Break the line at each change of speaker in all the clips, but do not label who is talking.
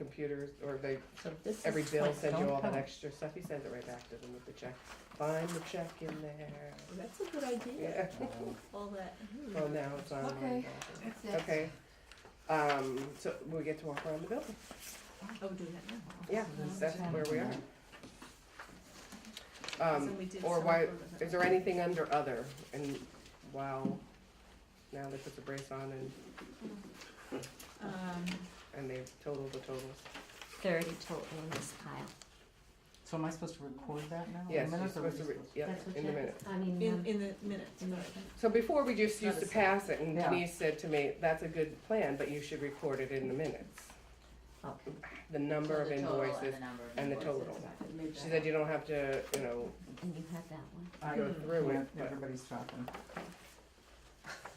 computers, or they,
So this is
every bill
like,
sends you
don't
all that
tell.
extra stuff, he sends it right back to them with the check. Find the check in there,
That's a good idea.
yeah, Mm-hmm.
All that.
well, now it's on.
Okay. That's it.
Okay, um, so we get to walk around the building,
Oh, do that now.
yeah,
That's
that's where we are.
So
Um,
we did
or
some
why,
sort of-
is there anything under other, and wow, now they put the brace on and,
Um,
and they total the totals.
thirty total in this pile.
So am I supposed to record that now?
Yes,
The
you're
minutes are
supposed to, re-
released.
yeah,
That's what
in the
Jen-
minute.
I mean,
in,
um,
in the minutes, sorry.
So before we just
Not
used
a
to
second.
pass it, and
Yeah.
Denise said to me, that's a good plan, but you should record it in the minutes.
okay.
The number of invoices, and the total. she said you don't have to, you know,
And you have that one?
I
go through it,
can't-
but
Everybody's talking.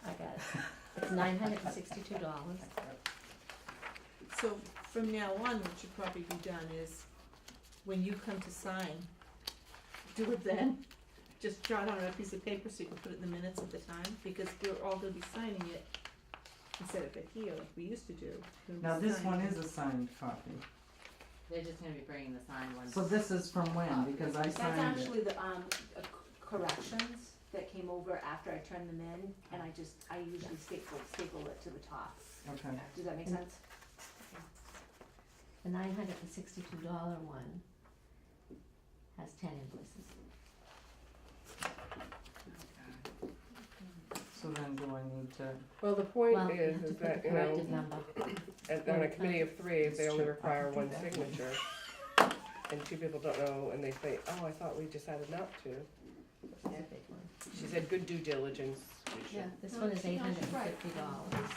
I got it. It's nine hundred and sixty-two dollars.
So from now on, what should probably be done is, when you come to sign, do it then. Just jot on a piece of paper so you can put it in the minutes at the time, because we're all gonna be signing it instead of it here like we used to do. We'll be
Now, this
signing
one is a signed copy.
They're just gonna be bringing the signed one.
So this is from when? Because I
That's
signed it.
actually the, um, uh, c- corrections that came over after I turned them in, and I just, I usually staple, staple it to the top.
Okay.
Does that make
Mm.
sense?
The nine hundred and sixty-two dollar one has ten invoices.
So then do I need to,
well, the point
Well, you have
is,
to
is
put
that,
the
you know,
corrected number.
and on a committee of three, if they
It's
only
true.
require
I can do
one
that.
signature. And two people don't know, and they say, oh, I thought we decided not to.
It's a big one.
She said, good due diligence, we should.
Yeah, this
No,
one is
she-
eight
no,
hundred
she's
and
right.
fifty dollars.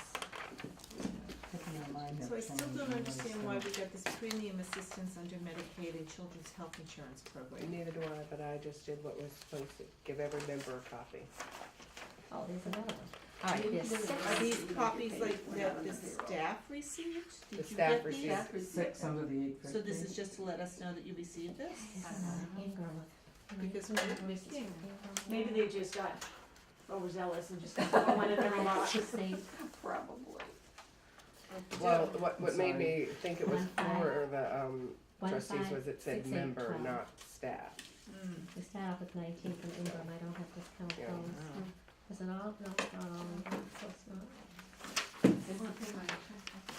picking up mine
So I still don't understand why we got this premium assistance under Medicaid and Children's Health Insurance Program.
Neither do I, but I just did what was supposed to, give every member a copy.
Oh, there's another one. All right,
You
there's
can do
six.
it.
Are these
Yes.
copies like
We're not
that
on
the
the payroll.
staff received?
The
Did you
staff
get these?
received.
Six under the eight fifty.
So this is just to let us know that you received this?
There's another Ingram.
Because we didn't miss it.
Maybe they just got overzealous and just got one in their
Let's
lot.
just say
Probably.
Well, what,
I'm
what made
sorry.
me think it was
One five.
for the, um,
one
trustees
five,
was it
six,
said
eight,
member,
twelve.
not staff.
Mm.
We start off with nineteen from Ingram, I don't have this count
Yeah.
going. Is it all, no, it's not all, of them, so it's not.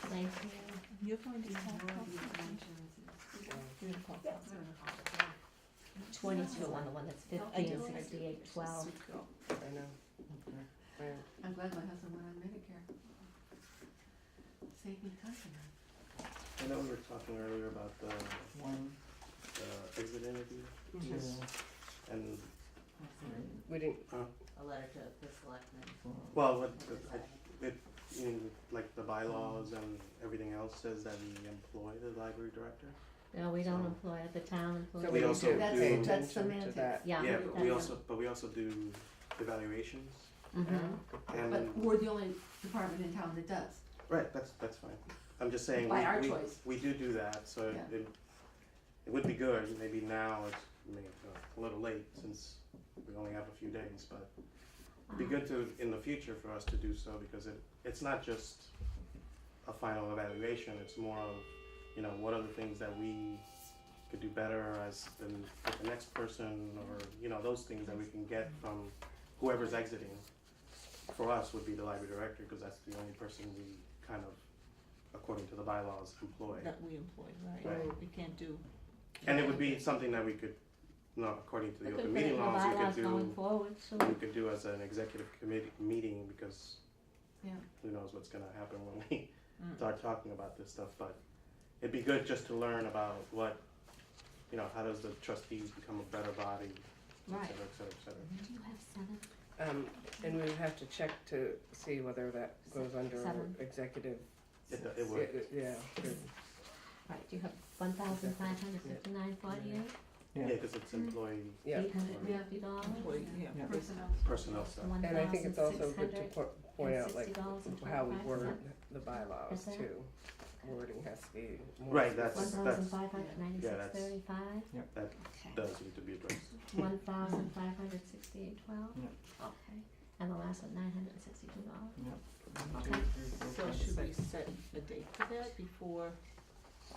Nineteen,
You're going to have You're gonna call council.
twenty-two on the one that's
I
fifteen,
do, I do.
sixty-eight, twelve.
Oh, I know. I-
I'm glad my husband went on Medicare. Saved me time.
I know we were talking earlier about the,
One,
the exit interview
two,
and,
three,
We didn't,
A letter to the selectmen.
four.
well, what, I, it, in, like, the bylaws and everything else says that we employ the library director.
No, we don't employ it, the town employs
so
it.
we
We
need
also
to
That's-
pay
that's
attention to
semantics.
that.
Yeah.
Yeah, but we
that's-
also, but we also do evaluations
Mhm.
and,
But we're the only department in town that does.
right, that's, that's fine. I'm just saying,
By our
we, we,
choice.
we do do that, so
Yeah.
it, it would be good, maybe now it's, I mean, uh, a little late since we only have a few days, but be good to, in the future, for us to do so, because it, it's not just a final evaluation, it's more of, you know, what are the things that we could do better as the, with the next person, or, you know, those things that we can get from whoever's exiting. For us would be the library director, because that's the only person we kind of, according to the bylaws, employ.
That we employ, right?
Right.
We can't do.
And it would be something that we could, no, according to
We
the
could
open
put it in
meeting
the
laws, we
bylaws
could do.
going forward, so
we could do as an executive committee meeting because
Yeah.
who knows what's gonna happen when we
Mm.
start talking about this stuff, but it'd be good just to learn about what, you know, how does the trustees become a better body, et
Right.
cetera, et cetera, et cetera.
do you have seven?
Um, and we have to check to see whether that goes under
Seven.
executive,
It,
yeah,
it would,
yeah, good.
Right, do you have one thousand five hundred fifty-nine forty-eight,
yeah,
Yeah.
cause
Mm.
it's employee
Yeah.
eight hundred and fifty dollars?
Employee, yeah.
Yeah.
Oh, Personnel.
personnel stuff.
One
and I think
thousand
it's also
six
good to
hundred
po- point
and
out
sixty
like
dollars and
how we
twenty-five
word
cents.
the bylaws
Is that-
too. Wording has to be more.
Right,
specific.
One
that's-
thousand five hundred
yeah,
ninety-six
that's-
thirty-five?
That
Okay.
does need to be addressed.
One thousand five hundred sixty-eight twelve?
Yeah.
Okay, and the last one, nine hundred and sixty-two dollars?
Yep.
Okay.
Two, three, four,
So
five,
should we
six.
set a date for that before